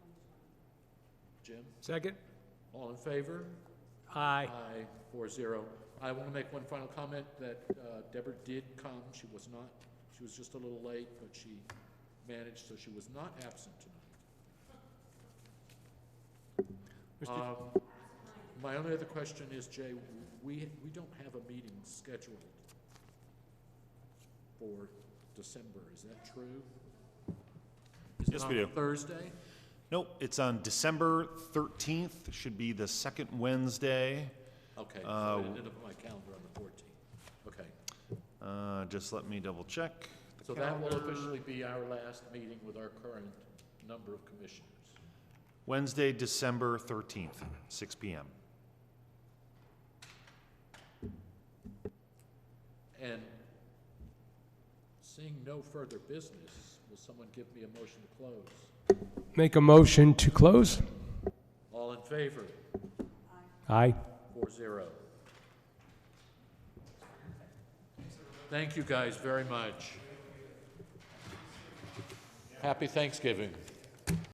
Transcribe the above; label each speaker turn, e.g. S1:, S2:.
S1: Jim?
S2: Second?
S1: All in favor?
S2: Aye.
S1: Aye, four zero. I want to make one final comment that uh, Deborah did come. She was not, she was just a little late, but she managed, so she was not absent tonight.
S2: Mr.
S1: Um, My only other question is, Jay, we, we don't have a meeting scheduled for December. Is that true? Is it
S3: Yes, we
S1: on
S3: do.
S1: Thursday?
S3: Nope, it's on December 13th, should be the second Wednesday.
S1: Okay, so
S3: Uh,
S1: I ended up on my calendar on the fourteenth. Okay,
S3: Uh, Just let me double check. the
S1: so that will
S3: calendar.
S1: officially be our last meeting with our current number of commissioners.
S3: Wednesday, December 13th, 6 PM.
S1: And seeing no further business, will someone give me a motion to close?
S2: Make a motion to close?
S1: All in favor?
S2: Aye.
S1: Four zero. Thank you guys very much. Happy Thanksgiving.